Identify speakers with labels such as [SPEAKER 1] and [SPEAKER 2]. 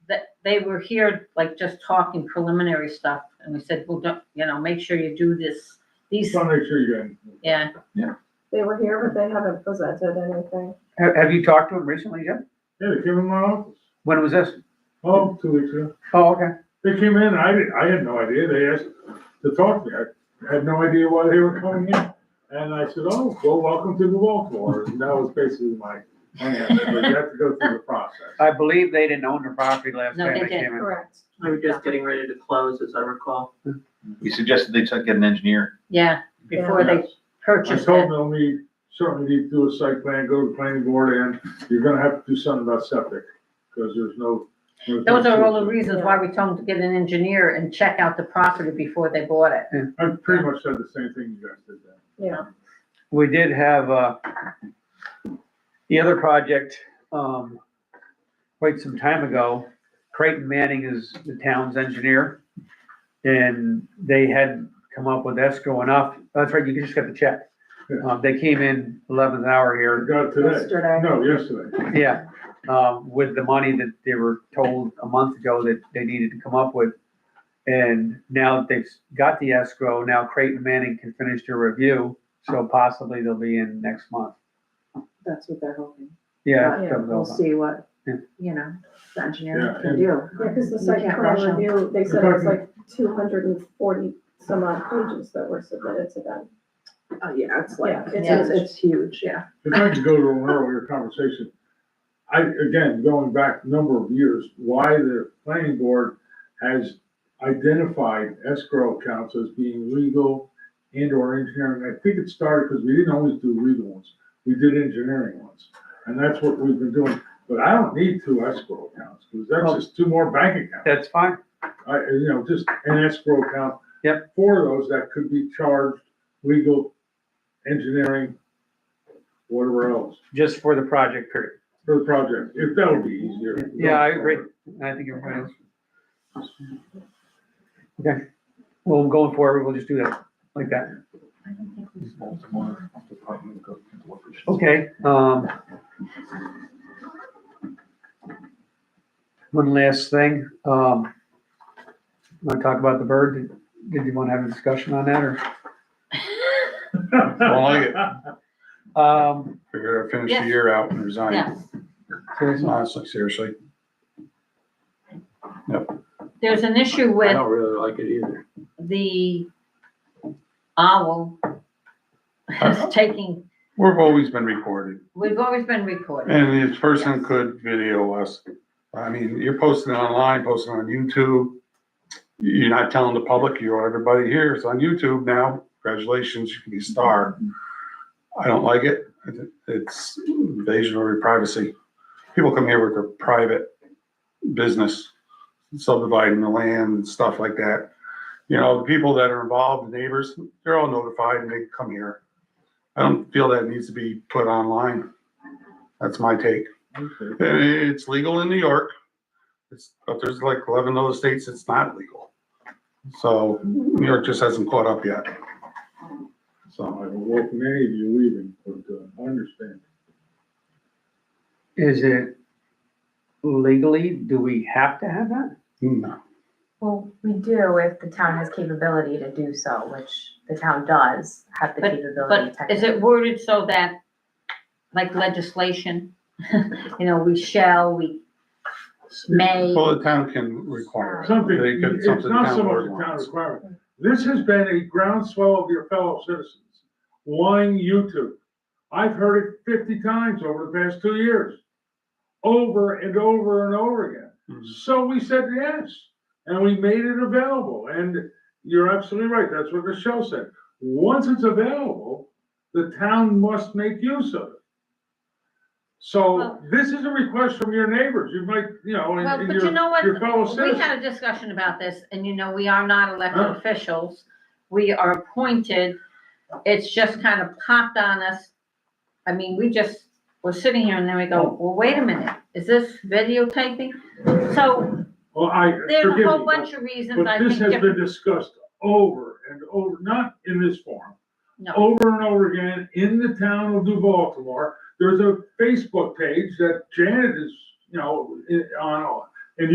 [SPEAKER 1] they were here, like, just talking preliminary stuff, and we said, well, don't, you know, make sure you do this,
[SPEAKER 2] Just
[SPEAKER 1] these,
[SPEAKER 2] wanna make sure you're in.
[SPEAKER 1] yeah,
[SPEAKER 3] They were here, but they haven't presented anything.
[SPEAKER 4] Have, have you talked to him recently, Jim?
[SPEAKER 2] Yeah, they came in my office,
[SPEAKER 4] When was this?
[SPEAKER 2] oh, two weeks ago.
[SPEAKER 4] Oh, okay.
[SPEAKER 2] They came in, I didn't, I had no idea, they asked to talk to me, I had no idea why they were coming in. And I said, oh, well, welcome to the Baltimore, and that was basically my, my answer, but you have to go through the process.
[SPEAKER 4] I believe they didn't own the property last
[SPEAKER 1] No,
[SPEAKER 4] time
[SPEAKER 1] they
[SPEAKER 4] they came in.
[SPEAKER 3] Correct.
[SPEAKER 5] We were just getting ready to close, as I recall.
[SPEAKER 6] We suggested they took, get an engineer.
[SPEAKER 1] yeah, before they
[SPEAKER 2] I
[SPEAKER 1] purchased
[SPEAKER 2] told
[SPEAKER 1] it.
[SPEAKER 2] them, we certainly need to do a site plan, go to the planning board, and you're gonna have to do something about septic, because there's no. there's no
[SPEAKER 1] Those are all the
[SPEAKER 2] solution.
[SPEAKER 1] reasons why we told them to get an engineer and check out the property before they bought it.
[SPEAKER 2] I pretty much said the same thing you guys did then.
[SPEAKER 3] Yeah.
[SPEAKER 4] We did have, uh, the other project, um, quite some time ago. Creighton Manning is the town's engineer. And they hadn't come up with escrow enough. That's right, you just got the check. Um, they came in eleventh hour here.
[SPEAKER 2] I got it today,
[SPEAKER 3] Yesterday.
[SPEAKER 2] no, yesterday,
[SPEAKER 4] Yeah, um, with the money that they were told a month ago that they needed to come up with. And now that they've got the escrow, now Creighton Manning can finish their review, so possibly they'll be in next month.
[SPEAKER 7] That's what they're hoping.
[SPEAKER 4] Yeah.
[SPEAKER 3] Yeah,
[SPEAKER 4] so
[SPEAKER 7] We'll
[SPEAKER 4] they'll-
[SPEAKER 7] see what,
[SPEAKER 4] Yeah.
[SPEAKER 7] you know, the engineer
[SPEAKER 2] Yeah,
[SPEAKER 7] can
[SPEAKER 2] and-
[SPEAKER 7] do.
[SPEAKER 3] Because the
[SPEAKER 7] You
[SPEAKER 3] site
[SPEAKER 7] can't
[SPEAKER 3] plan
[SPEAKER 7] rush 'em.
[SPEAKER 3] review, they said it was like two hundred and forty some odd pages that were submitted to them.
[SPEAKER 7] Oh, yeah, it's like,
[SPEAKER 3] Yeah, it's
[SPEAKER 7] it's,
[SPEAKER 3] huge.
[SPEAKER 7] it's huge, yeah.
[SPEAKER 2] if I could go to an earlier conversation, I, again, going back a number of years, why the planning board has identified escrow accounts as being legal and or engineering, I think it started because we didn't always do legal ones, we did engineering ones, and that's what we've been doing, but I don't need two escrow accounts, because that's just two more bank accounts.
[SPEAKER 4] That's fine,
[SPEAKER 2] I, you know, just an escrow account.
[SPEAKER 4] Yep.
[SPEAKER 2] For those that could be charged legal, engineering, whatever else,
[SPEAKER 4] just for the project period.
[SPEAKER 2] for the project, if that would be easier.
[SPEAKER 4] Yeah, I agree. I think everybody else. Okay, well, going forward, we'll just do that like that. Okay, um. One last thing, um. Want to talk about the bird? Did- Did you want to have a discussion on that or?
[SPEAKER 8] Don't like it.
[SPEAKER 4] Um,
[SPEAKER 8] Figure I finish
[SPEAKER 1] Yes.
[SPEAKER 8] the year out and resign.
[SPEAKER 1] Yes,
[SPEAKER 4] seriously,
[SPEAKER 8] Honestly, seriously,
[SPEAKER 1] there's an issue
[SPEAKER 8] I
[SPEAKER 1] with
[SPEAKER 8] don't really like it either.
[SPEAKER 1] the owl
[SPEAKER 2] Uh-huh.
[SPEAKER 1] is taking,
[SPEAKER 8] We've always been recorded
[SPEAKER 1] we've always been recorded.
[SPEAKER 8] and this person could video us. I mean, you're posting online, posting on YouTube. You're not telling the public, you are everybody here. It's on YouTube now. Congratulations, you can be a star. I don't like it. I thi- It's invasion of your privacy. People come here with their private business, subdividing the land and stuff like that. You know, the people that are involved, the neighbors, they're all notified and they come here. I don't feel that needs to be put online. That's my take.
[SPEAKER 2] Okay.
[SPEAKER 8] And It's legal in New York. It's, but there's like eleven other states it's not legal. So New York just hasn't caught up yet.
[SPEAKER 2] I
[SPEAKER 8] So
[SPEAKER 2] don't welcome any of you leaving, but uh, I understand.
[SPEAKER 4] is it legally, do we have to have that?
[SPEAKER 8] no,
[SPEAKER 9] Well, we do if the town has capability to do so, which the town does have the capability
[SPEAKER 1] But is
[SPEAKER 9] technically.
[SPEAKER 1] it worded so that, like legislation, you know, we shall, we may,
[SPEAKER 8] well, the town can require it.
[SPEAKER 2] Something,
[SPEAKER 8] They could-
[SPEAKER 2] it's
[SPEAKER 8] something
[SPEAKER 2] not
[SPEAKER 8] town
[SPEAKER 2] so much
[SPEAKER 8] board
[SPEAKER 2] a town
[SPEAKER 8] wants.
[SPEAKER 2] requirement. This has been a groundswell of your fellow citizens wanting YouTube. I've heard it fifty times over the past two years, over and over and over again.
[SPEAKER 8] Mhm.
[SPEAKER 2] So we said yes, and we made it available, and you're absolutely right, that's what Michelle said. Once it's available, the town must make use of it. So
[SPEAKER 1] Well-
[SPEAKER 2] this is a request from your neighbors, you might, you know, and
[SPEAKER 1] well,
[SPEAKER 2] and
[SPEAKER 1] but you
[SPEAKER 2] your,
[SPEAKER 1] know what?
[SPEAKER 2] your fellow
[SPEAKER 1] We
[SPEAKER 2] citizens.
[SPEAKER 1] had a discussion about this, and you know, we are not
[SPEAKER 2] Huh.
[SPEAKER 1] elected officials. We are appointed. It's just kind of popped on us. I mean, we just were sitting here and then we
[SPEAKER 2] Oh.
[SPEAKER 1] go, well, wait a minute, is this videotaping? So
[SPEAKER 2] Well, I,
[SPEAKER 1] there's a
[SPEAKER 2] forgive
[SPEAKER 1] whole
[SPEAKER 2] me,
[SPEAKER 1] bunch of reasons I
[SPEAKER 2] but this
[SPEAKER 1] think
[SPEAKER 2] has been
[SPEAKER 1] different,
[SPEAKER 2] discussed over and over, not in this forum.
[SPEAKER 1] No.
[SPEAKER 2] Over and over again in the town of New Baltimore. There's a Facebook page that Janet is, you know, i- on,